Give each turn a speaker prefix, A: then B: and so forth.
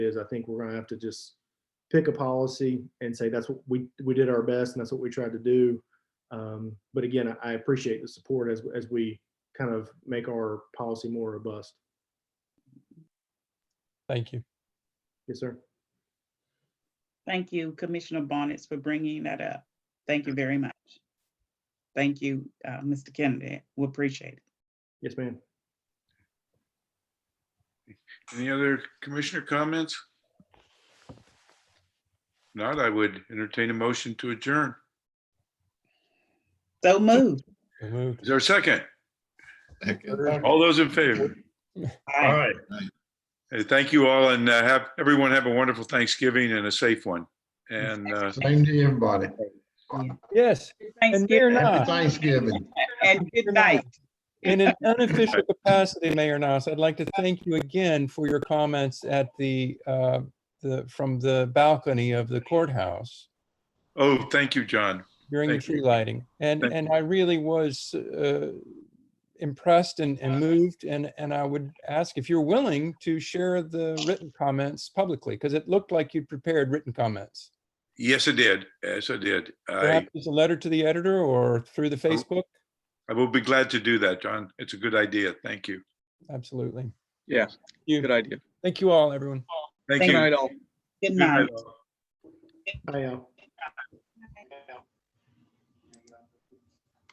A: is I think we're gonna have to just pick a policy and say that's what we, we did our best and that's what we tried to do. Um, but again, I- I appreciate the support as, as we kind of make our policy more robust.
B: Thank you.
A: Yes, sir.
C: Thank you, Commissioner Bonnets, for bringing that up. Thank you very much. Thank you, uh, Mr. Kennedy. We appreciate it.
A: Yes, ma'am.
D: Any other commissioner comments? Not, I would entertain a motion to adjourn.
C: So moved.
B: So moved.
D: Is there a second?
E: Second.
D: All those in favor?
C: Aye.
D: Hey, Thank you all and uh, have, everyone have a wonderful Thanksgiving and a safe one. And uh,
E: Same to everybody.
B: Yes, and Mayor
C: Thanksgiving
E: Happy
B: Nas,
E: Thanksgiving.
C: and good night.
B: in an unofficial capacity, Mayor Nas, I'd like to thank you again for your comments at the, uh, the, from the balcony of the courthouse
D: oh, thank you, John.
B: during the
D: Thank you.
B: tree lighting. And,
D: Thank
B: and I really was uh, impressed and, and moved. And, and I would ask if you're willing to share the written comments publicly, because it looked like you prepared written comments.
D: Yes, it did. Yes, it did. I, Oh.
B: Perhaps it's a letter to the editor or through the Facebook?
D: I will be glad to do that, John. It's a good idea. Thank you.
B: Absolutely.
F: Yeah,
B: You,
F: good idea.
B: thank you all, everyone.
C: Thank
D: Thank
F: Good
D: you.
F: night, all.
C: Good
D: Good
C: night.
D: night.
A: Bye, y'all.